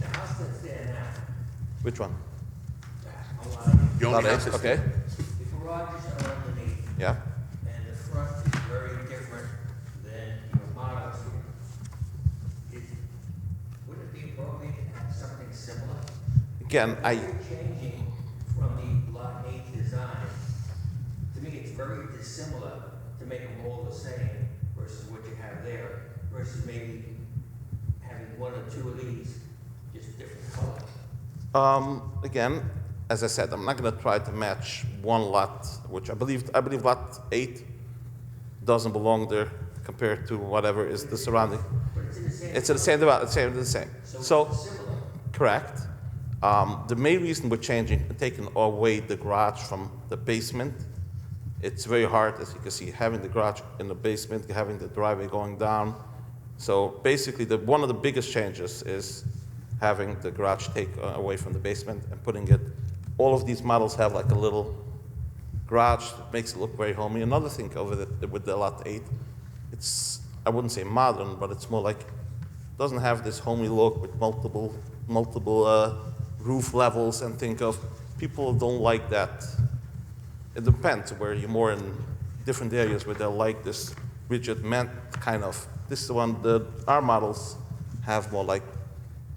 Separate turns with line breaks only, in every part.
that's there now.
Which one?
A lot of,
You
Lot
only
of
access.
access. Okay,
the garages are underneath,
yeah,
and the front is very different than your models here. Is- Would it be appropriate to have something similar?
again,
You're
I,
Changing from the lot eight design, to me, it's very dissimilar to make them all the same versus what you have there, versus maybe having one or two of these, just different color.
Um, again, as I said, I'm not going to try to match one lot, which I believe I believe lot eight doesn't belong there compared to whatever is the surrounding.
But it's in the same.
It's the same, the same, the same.
So
So
it's similar.
correct. Um, the main reason we're changing, taking away the garage from the basement, it's very hard, as you can see, having the garage in the basement, having the driveway going down. So basically, the, one of the biggest changes is having the garage take uh, away from the basement and putting it, all of these models have like a little garage that makes it look very homey. Another thing over the, with the lot eight, it's, I wouldn't say modern, but it's more like, doesn't have this homey look with multiple, multiple uh, roof levels and think of, people don't like that it depends where you're more in different areas where they like this rigid man kind of this is the one the our models have more like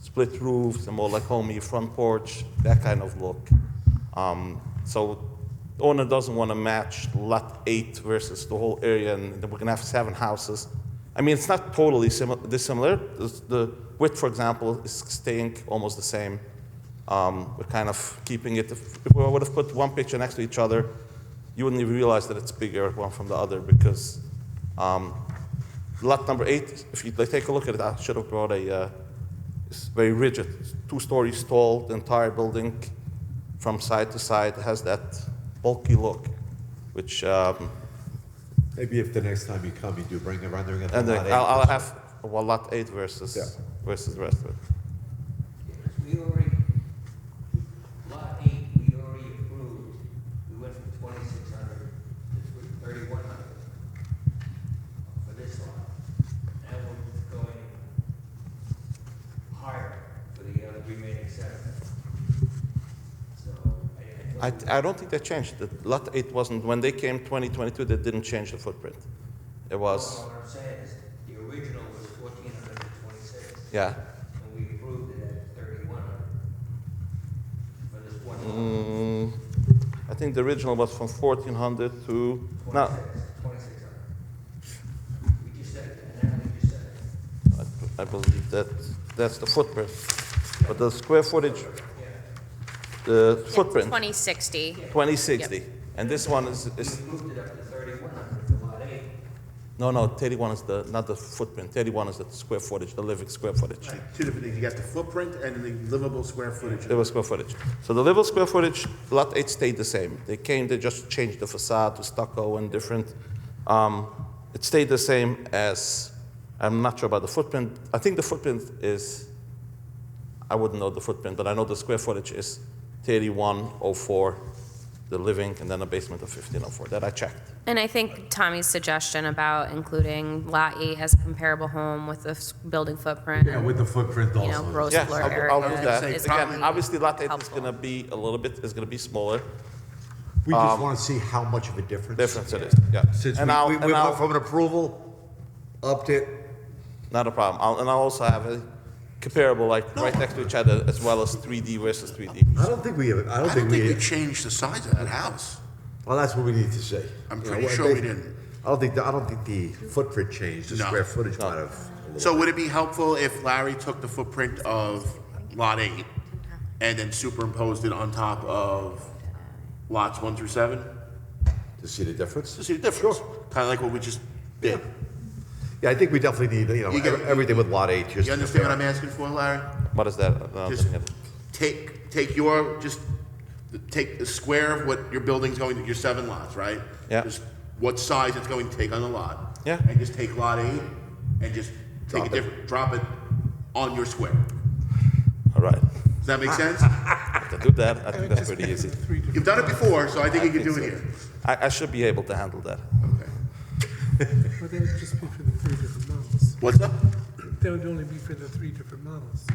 split roofs and more like homey front porch that kind of look um, so the owner doesn't want to match lot 8 versus the whole area and then we're going to have seven houses i mean it's not totally simi- dissimilar This- the width for example is staying almost the same um, we're kind of keeping it. If we would have put one picture next to each other, you wouldn't even realize that it's bigger one from the other because um, lot number eight, if you like, take a look at it, I should have brought a. Uh, it's very rigid, it's two stories tall, the entire building from side to side has that bulky look, which um,
Maybe if the next time you come, you do bring a rendering of the
and
lot
then
eight.
I'll, I'll have well, lot eight versus
Yeah.
versus the rest of it.
Because we already, lot eight, we already approved, we went from twenty-six hundred to thirty-one hundred for this lot. Now we're going higher for the other remaining seven. So I, I.
I,
don't-
I don't think they changed it. Lot eight wasn't when they came 2022. They didn't change the footprint. It was
What I'm saying is, the original was fourteen hundred and twenty-six.
yeah.
And we approved it at thirty-one hundred for this one lot,
Mm, I think the original was from 1400 to no.
twenty-six, twenty-six hundred. We just said, it, and now we just said, it.
I, I believe that that's the footprint, but the square footage,
yeah,
the
Yeah,
footprint
2060.
2060, and this one is, is
we moved it up to thirty-one hundred for lot eight.
no no 31 is the not the footprint. 31 is the square footage, the living square footage.
Two different things, you got the footprint and the livable square footage.
There was square footage. So the level square footage, lot eight stayed the same. They came, they just changed the facade to stucco and different. Um, it stayed the same as, I'm not sure about the footprint. I think the footprint is, I wouldn't know the footprint, but I know the square footage is 3104, the living, and then a basement of 1504. That I checked.
And I think Tommy's suggestion about including Lot 8 as a comparable home with the s- building footprint,
Yeah,
and,
with the footprint
you know,
also.
gross
Yes,
floor
I'll, I'll do
area
that.
is
Again,
probably
obviously lot eight is
helpful.
going to be a little bit, is going to be smaller.
We just want to see how much of a difference.
Um, Difference it is, yeah.
Since we,
And I'll-
we
and
we
I'll-
went from an approval up to,
Not a problem. I'll, and I'll also have a comparable, like right next to each other, as well as 3D versus 3D.
I don't think we, have- I don't
I don't
think
think we
we,
changed the size of that house.
well, that's what we need to say.
I'm
You know,
pretty
I
sure we
think-
didn't.
I don't think, the- I don't think the footprint changed, the
No.
square footage
No.
might have. a little-
So would it be helpful if Larry took the footprint of lot eight and then superimposed it on top of lots one through seven
To see the difference?
to see the difference? Kind of like what we just did.
Yeah, I think we definitely need, you know,
You get-
ev- everything with lot eight, just.
You understand what I'm asking for, Larry?
What is that? No, I'm
Just
looking at it.
take, take your, just take the square of what your building's going to, your seven lots, right?
Yeah.
Just what size it's going to take on the lot.
Yeah.
And just take lot eight and just take
Drop
a
it.
different, drop it on your square.
All right.
Does that make sense?
To do that, I think that's pretty easy.
You've done it before, so I think you can do it here.
I, I should be able to handle that.
Okay.
Well, that would just be for the three different models.
What's up?
That would only be for the three different models.